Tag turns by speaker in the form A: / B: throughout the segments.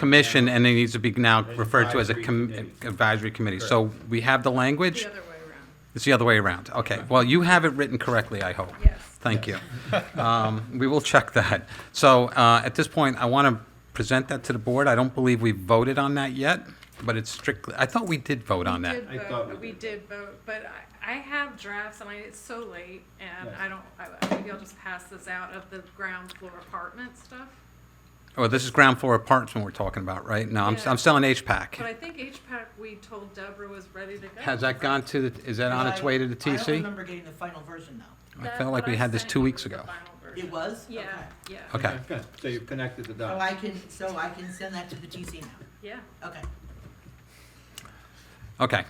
A: commission, and it needs to be now referred to as a
B: Advisory
A: com-
B: committee.
A: advisory committee. So we have the language?
C: The other way around.
A: It's the other way around. Okay. Well, you have it written correctly, I hope.
C: Yes.
A: Thank you. Um, We will check that. So uh, at this point, I want to present that to the board. I don't believe we voted on that yet, but it's strictly, I thought we did vote on that.
C: We did
B: I thought
C: vote,
B: we
C: we did vote, but I, I have drafts and I, it's so late and
B: Yeah.
C: I don't, I, maybe I'll just pass this out of the ground floor apartment stuff.
A: Oh, this is ground floor apartment we're talking about, right? No, I'm
C: Yeah.
A: I'm selling
C: But I
A: HPAC.
C: think HPAC, we told Deborah was ready to go.
A: Has that gone to, the- is that on its way to the
D: I don't
A: TC?
D: remember getting the final version now.
A: I
C: That's
A: felt
C: what
A: like we
C: I
A: had this
C: sent
A: two
C: you,
A: weeks
C: the
A: ago.
C: final version.
D: It was?
C: Yeah,
D: Okay.
C: yeah,
A: Okay.
B: Good. So you've connected the
D: So
B: dots.
D: I can, so I can send that to the TC now.
C: yeah.
D: Okay.
A: Okay.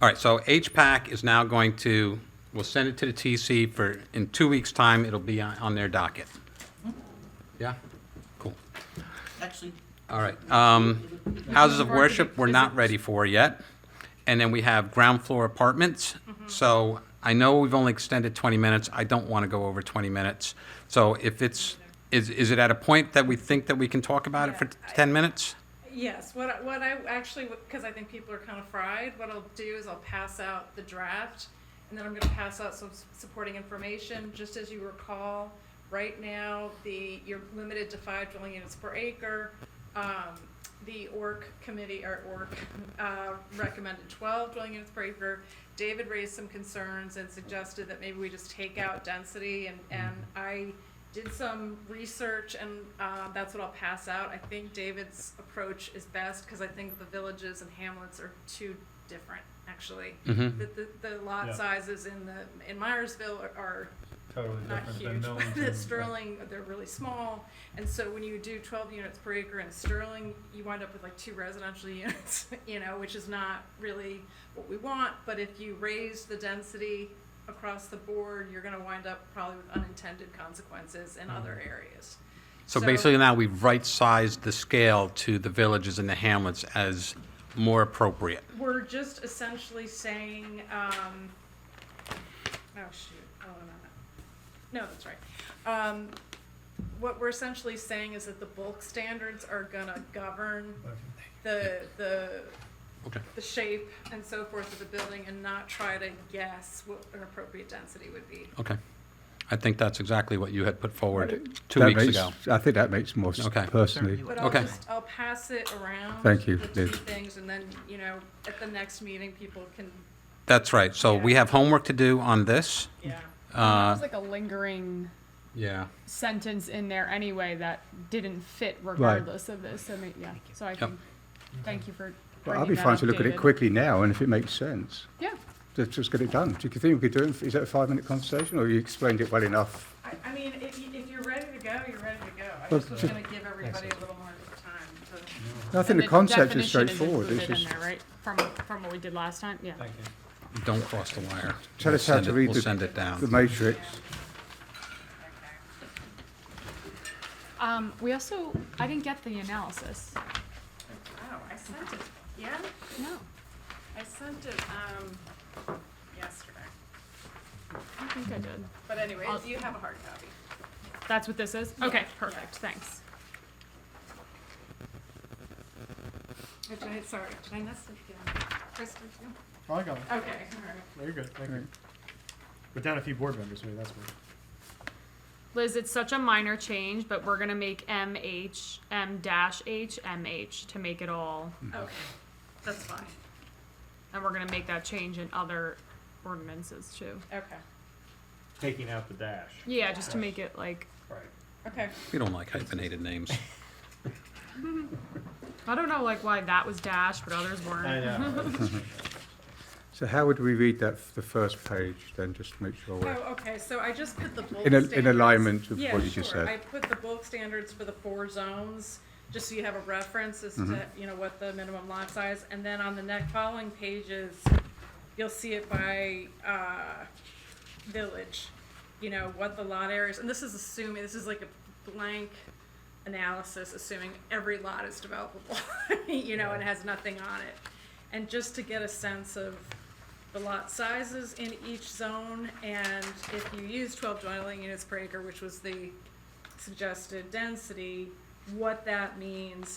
A: All right, so HPAC is now going to, we'll send it to the TC for, in two weeks' time, it'll be on, on their docket. Yeah? Cool.
D: Actually,
A: All right. Um, houses of worship, we're not ready for yet. And then we have ground floor apartments.
C: Mm-hmm.
A: So I know we've only extended 20 minutes. I don't want to go over 20 minutes. So if it's, is, is it at a point that we think that we can talk about it for
C: Yeah, I-
A: 10 minutes?
C: Yes, what I, what I actually, because I think people are kind of fried, what I'll do is I'll pass out the draft, and then I'm gonna pass out some s- supporting information, just as you recall, right now, the, you're limited to five dwelling units per acre. Um, the ORC committee, or ORC, uh, recommended twelve dwelling units per acre. David raised some concerns and suggested that maybe we just take out density, and, and I did some research and uh, that's what I'll pass out. I think David's approach is best because I think the villages and hamlets are too different, actually.
A: Mhm.
C: The, the, the lot
B: Yeah.
C: sizes in the in Myersville are, are
B: Totally
C: not
B: different than
C: huge.
B: Millings
C: but
B: and-
C: Sterling, they're really small, and so when you do 12 units per acre in Sterling, you wind up with like two residential units, you know, which is not really what we want. But if you raise the density across the board, you're going to wind up probably with unintended consequences in other
B: Mm-hmm.
C: areas.
A: So
C: So-
A: basically now we've right-sized the scale to the villages and the hamlets as more appropriate.
C: We're just essentially saying, um, oh shoot, oh, no, no, no, that's right. Um, what we're essentially saying is that the bulk standards are gonna govern the, the,
A: Okay.
C: the shape and so forth of the building and not try to guess what an appropriate density would be.
A: Okay. I think that's exactly what you had put forward two
E: That
A: weeks
E: makes-
A: ago.
E: I think that makes more sense
A: Okay.
E: personally.
C: But I'll
A: Okay.
C: just, I'll pass it around.
E: Thank you,
C: The two
E: Liz.
C: things, and then, you know, at the next meeting, people can,
A: That's right. So we
C: Yeah.
A: have homework to do on this.
C: yeah.
A: Uh,
F: There's like a lingering
A: yeah.
F: sentence in there anyway that didn't fit regardless of this. So may- yeah, so I can thank you for.
E: But
F: bringing
E: I'll be
F: that
E: fine to
F: up,
E: look at it
F: David. quickly.
E: quickly now, and if it makes sense,
F: Yeah,
E: let's just get it done. Do you think we could do it, is that a five-minute conversation, or you explained it well enough?
C: I, I mean, if, you- if you're ready to go, you're ready to go. I
E: Well,
C: just was
E: ju-
C: gonna give everybody a little more time to.
E: I think the concept is straightforward. It's
F: Included in
E: just,
F: there, right? From from what we did last time. Yeah.
B: Thank you.
A: Don't cross the wire.
E: tell
A: We'll
E: us how
A: send
E: to
A: it-
E: read
A: We'll send
E: the,
A: it down.
E: the matrix.
F: Um, we also I didn't get the analysis.
C: Oh, I sent it, yeah,
F: No.
C: I sent it, um, yesterday.
F: I think I did.
C: But anyway,
F: I'll-
C: you have a hard copy.
F: That's what this is. Okay. Perfect. Thanks.
C: Did I, sorry, did I miss it? Kristen,
G: Oh, I got it.
C: Okay, all right.
G: No, you're good. Thank you. But down a few board members, maybe that's weird.
F: Liz, it's such a minor change, but we're gonna make M H M dash H M H to make it all
G: Mm-hmm.
C: Okay, that's fine.
F: And we're gonna make that change in other ordinances too.
C: Okay,
G: Taking out the dash.
F: Yeah, just to make it like,
G: Right.
C: okay.
A: We don't like hyphenated names.
F: I don't know like why that was dash, but others
G: I
F: weren't.
G: know.
E: So how would we read that, f- the first page, then, just to make sure
C: Oh,
E: we're...
C: okay, so I just put the bulk
E: In a- in
C: standards.
E: alignment with
C: Yeah,
E: what you just
C: sure.
E: said.
C: I put the bulk standards for the four zones, just so you have a reference as to,
E: Mm-hmm.
C: you know, what the minimum lot size, and then on the next, following pages, you'll see it by, uh, village, you know, what the lot areas, and this is assuming, this is like a blank analysis, assuming every lot is developable, you know, and has nothing on it. And just to get a sense of the lot sizes in each zone, and if you use twelve dwelling units per acre, which was the suggested density, what that means